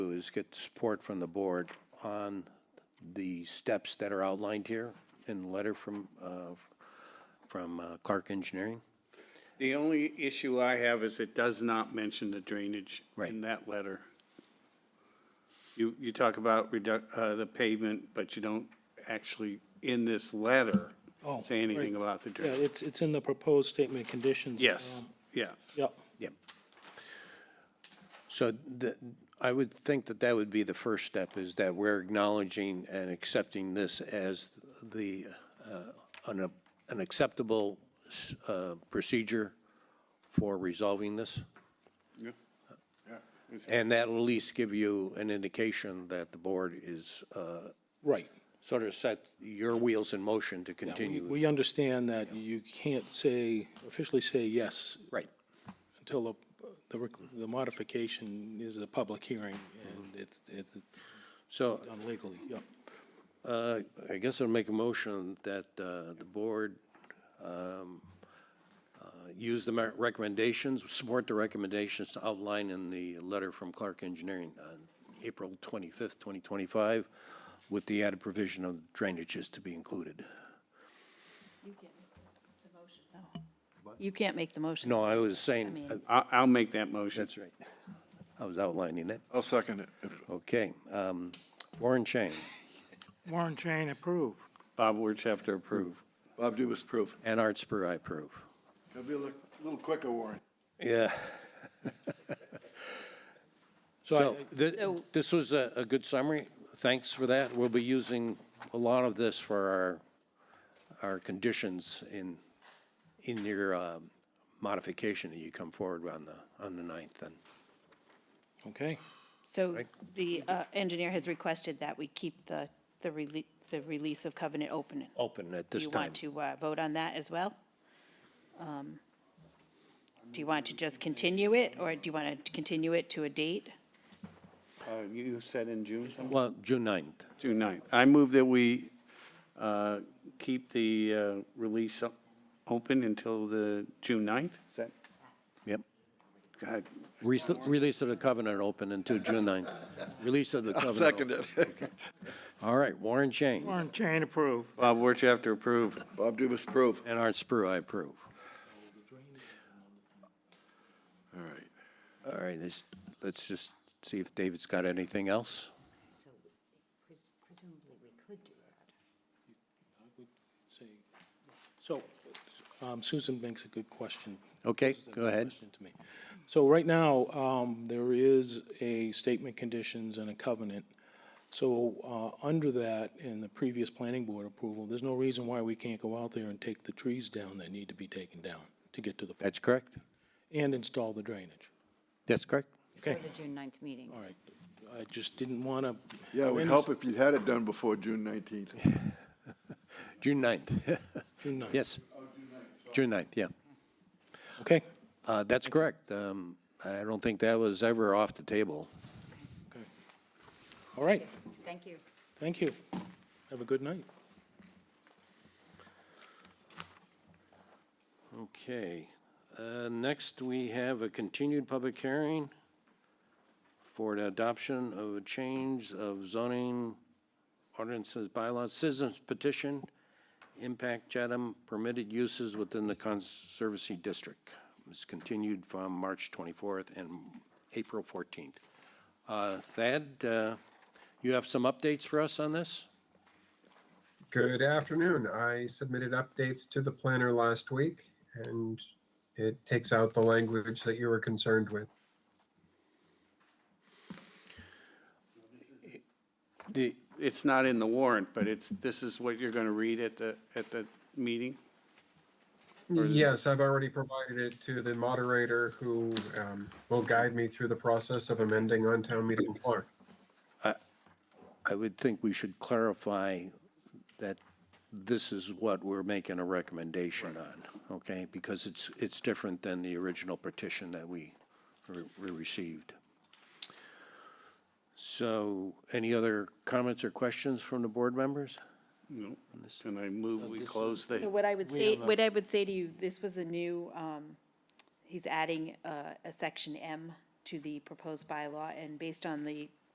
is get support from the board on the steps that are outlined here in the letter from, uh, from uh, Clark Engineering. The only issue I have is it does not mention the drainage Right. in that letter. You, you talk about reduc, uh, the pavement, but you don't actually, in this letter, Oh, say anything right. about the Yeah, drainage. it's, it's in the proposed statement of conditions. Yes, um, yeah. Yep. Yep. So the, I would think that that would be the first step, is that we're acknowledging and accepting this as the, uh, an an acceptable s- uh, procedure for resolving this. And that'll at least give you an indication that the board is uh, Right. sort of set your wheels in motion to Yeah, we- continue. We understand that you can't say, officially say yes Right. until the, the rec- the modification is a public hearing and it's, it's So done legally, yep. Uh, I guess I'll make a motion that uh, the board um, uh, use the mer- recommendations, support the recommendations outlined in the letter from Clark Engineering on April 25th, 2025, with the added provision of drainages to be included. You can't make the motion, no. Oh. You can't make the motion. No, I was saying, uh, mean- I, I'll make that motion. that's right. I was outlining it. I'll second it. Okay. um, Warren Chain. Warren Chain approve. Bob Wirtschafter approve. Bob Dubus, approve. And Art Spur, I approve. Gotta be a little little quicker, Warren. Yeah. So thi- So- this was a, a good summary. Thanks for that. We'll be using a lot of this for our, our conditions in, in your um, modification that you come forward on the, on the 9th then. Okay, So the uh, engineer has requested that we keep the, the release, the release of covenant open. Open at Do this you want time. to uh, vote on that as well? Um, Do you want to just continue it, or do you want to continue it to a date? Uh, you said in June something? Well, June 9th. June ninth. I move that we, uh, keep the, uh, release o- open until the June ninth? Is that, Yep. God, Release, release of the covenant open until June 9th. Release of the I'll covenant. second open. it. All right, Warren Chain Warren Chain approve. Bob Wirtschafter approve. Bob Dubus, approve. and Art Spur, I approve. All right. All right, let's, let's just see if David's got anything else. So pres- presumably we could do that. so um, Susan makes a good question. Okay, This is a go good ahead. question to me. So right now, um, there is a statement conditions and a covenant. So, uh, under that, in the previous planning board approval, there's no reason why we can't go out there and take the trees down that need to be taken down to get to the, That's correct? and install the drainage. That's correct? Okay, For the June 9th meeting. Um, all right. I just didn't want to. Yeah, it would help if you had it done before June 19th. June 9th. June ninth. Yes. June 9th, yeah. Okay, Uh, That's correct. Um, I don't think that was ever off the table. all right. Thank you. Thank you. Have a good night. Okay. Uh, Next, we have a continued public hearing for the adoption of a change of zoning ordinances bylaws, citizens petition, impact Chatham permitted uses within the Conservancy District. It's continued from March 24th and April 14th. Uh, Thad, uh, you have some updates for us on this? Good afternoon. I submitted updates to the planner last week and it takes out the language that you were concerned with. The, it's not in the warrant, but it's, this is what you're gonna read at the, at the meeting? Yes, I've already provided it to the moderator who um, will guide me through the process of amending on town meeting floor. I would think we should clarify that this is what we're making a recommendation on, okay? Because it's, it's different than the original petition that we, re- we received. So any other comments or questions from the board members? No. And I move we close So the, what I would say, what I would say to you, this was a new, um, he's adding a, a section M to the proposed bylaw, and based on the